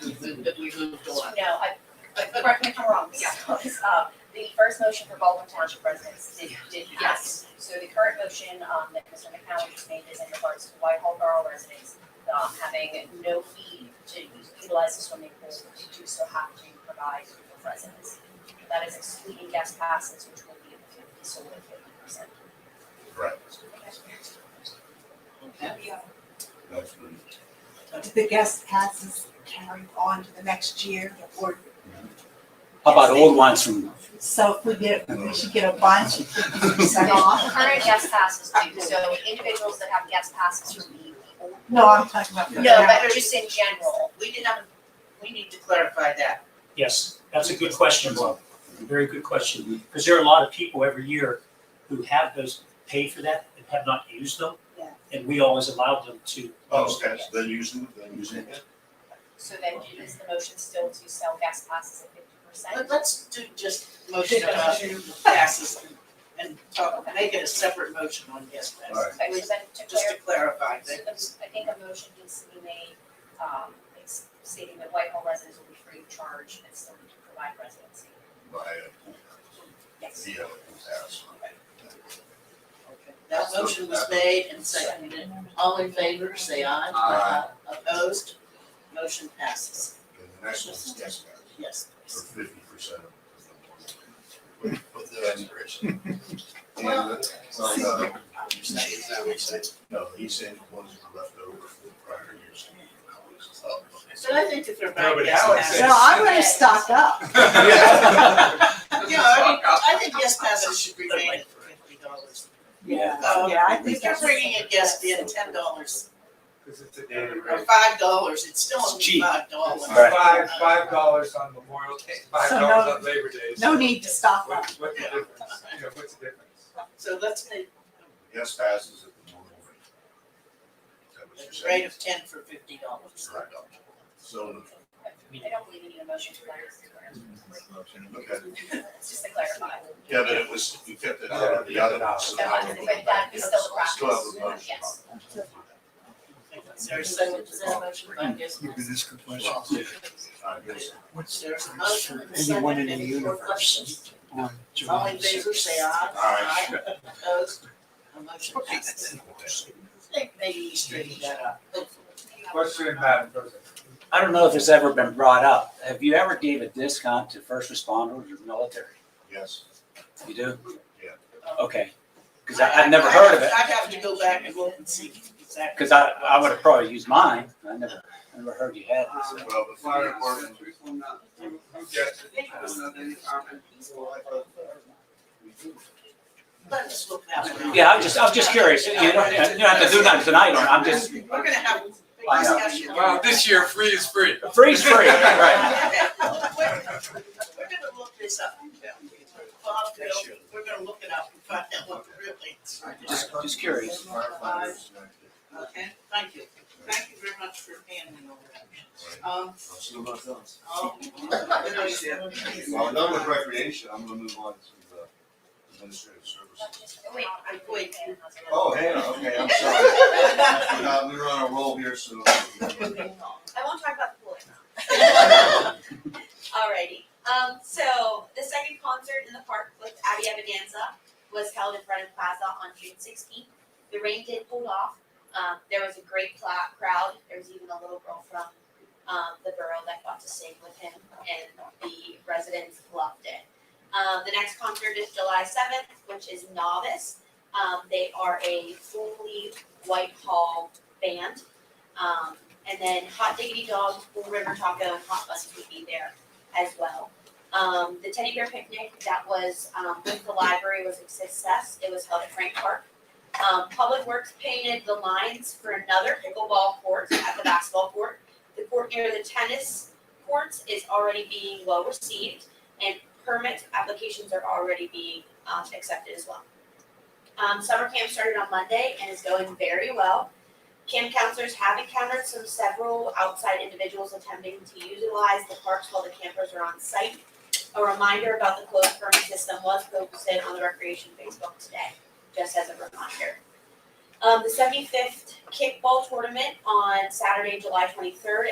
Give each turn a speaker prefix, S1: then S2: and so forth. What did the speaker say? S1: Did we move to what?
S2: No, I, correct me if I'm wrong, Mrs. Thomas. Uh, the first motion for Baldwin Township residents did, did pass. So the current motion, um, that Mr. McCallum just made is in regards to Whitehall Borough residents, um, having no fee to utilize the swimming pool, but to do so have to provide for residents. That is excluding guest passes, which will be fifty, so we're fifty percent.
S1: Okay.
S3: That's good.
S4: Do the guest passes carry on to the next year or
S5: How about old ones from,
S4: so if we get, we should get a bunch fifty percent
S2: The
S4: off?
S2: current guest passes do, so individuals that have guest passes will be.
S4: No, I'm talking about. for
S2: No,
S4: now.
S2: but just in general,
S1: We did not, we need to clarify that.
S5: yes, that's a good question, Bob. Very good question, because there are a lot of people every year who have those, paid for that and have not used them.
S1: Yeah.
S5: And we always allowed them to.
S3: Oh, okay, so they're using it, they're using it.
S2: So then is the motion still to sell gas passes at fifty
S1: Let,
S2: percent?
S1: let's do just motion about passes and talk, make it a separate motion on guest passes.
S2: Okay, so then to
S1: Just
S2: clarify,
S1: to clarify
S2: so
S1: that.
S2: the- I think a motion needs to be made, um, it's stating that Whitehall residents will be free of charge and still need to provide residency.
S3: By a pool house,
S2: Yes.
S3: via a pool house.
S1: That motion was made and seconded. All in favor, say aye.
S3: Aye.
S1: Opposed? Motion passes.
S3: And the next one is guest house,
S1: Yes,
S3: for
S1: please.
S3: fifty percent of the With the expiration. And
S1: Well-
S3: the- uh, Is that what he said? uh, No, he said the ones that were left over from the prior years.
S1: So I think if they're buying
S6: Nobody
S1: gas
S6: else
S1: passes.
S6: said-
S4: No, I'm gonna stock up.
S1: Yeah, I mean, I think guest passes should remain at fifty dollars.
S4: Yeah.
S1: Um,
S4: Oh, Yeah, I
S1: If
S4: think
S1: you're
S4: that's.
S1: bringing a guest in, ten dollars
S6: Because it's a daily
S1: or
S6: rate.
S1: five dollars, it's still
S5: It's
S1: only
S5: cheap.
S1: five dollars. Uh,
S5: Right.
S6: Five, five dollars on Memorial Day, five
S4: So
S6: dollars
S4: no-
S6: on Labor Day.
S4: No need to stock up.
S6: What, what's the difference? You know, what's the difference?
S1: So let's make
S3: Guest passes at the normal rate. Is that what you're
S1: a rate
S3: saying?
S1: of ten for fifty dollars.
S3: Right. So,
S2: I don't believe you need a motion for that, it's
S3: okay,
S2: just to clarify.
S3: yeah, but it was, we kept it out of the other one, so
S2: So
S3: now
S2: I
S3: we're
S2: think
S3: going
S2: that
S3: back.
S2: is still the
S3: Still have a
S2: practice,
S3: motion.
S2: yes.
S1: Is there a second to that motion by guest
S7: You can
S1: passes?
S7: ask a question.
S3: I guess.
S7: What's
S1: There's a motion
S7: for
S1: and a
S7: anyone in
S1: second,
S7: the
S1: any more
S7: universe
S1: questions?
S7: on
S1: All in
S7: July
S1: favor,
S7: sixth?
S1: say aye.
S3: Aye.
S1: Opposed? A motion passes. I think maybe you straightened that up, hopefully.
S6: Question, Madam President.
S5: I don't know if it's ever been brought up. Have you ever gave a discount to first responders or military?
S3: Yes,
S5: You do?
S3: Yeah.
S5: Okay, because I've never heard of it,
S1: I'd have to go back and look and see exactly.
S5: because I, I would have probably used mine. I never, I never heard you had this.
S3: well, the fire department,
S6: Who who gets it? I don't know any comment.
S1: Let's look that one up.
S5: Yeah, I'm just, I'm just curious. You don't, you don't have to do nothing tonight, or I'm just,
S1: We're gonna have a big
S5: I know.
S1: discussion.
S6: Well, this year free is free.
S5: freeze free, right?
S1: Okay, We're we're gonna look this up. Bob, Bill, we're gonna look it up and find out what really,
S5: Just, just curious.
S3: firefighters,
S1: okay? Thank you. Thank you very much for handling all that. Um, oh,
S3: Well, done with recreation, I'm gonna move on to the administrative services.
S1: Wait, wait, wait.
S3: Oh, Hannah, okay, I'm sorry. I forgot, we were on a roll here, so.
S8: I won't talk about the pool now. Alrighty, um, so the second concert in the park with Abby Evidanza was held in front of Plaza on June sixteenth. The rain did hold off, um, there was a great cla- crowd, there was even a little girl from, um, the borough that got to sing with him, and the residents loved it. Um, the next concert is July seventh, which is Novice, um, they are a fully Whitehall band. Um, and then Hot Diggity Dog, Full River Taco, and Hot Bus would be there as well. Um, the teddy bear picnic that was um, with the library was a success. It was held at Frank Park. Um, Public Works painted the lines for another pickleball court at the basketball court. The court near the tennis courts is already being well received, and permit applications are already being um, accepted as well. Um, summer camp started on Monday and is going very well. Camp counselors have encountered some several outside individuals attempting to utilize the parks while the campers are on site. A reminder about the closed permit system was posted on the recreation Facebook today, just as a reminder. Um, the seventy-fifth kickball tournament on Saturday, July twenty-third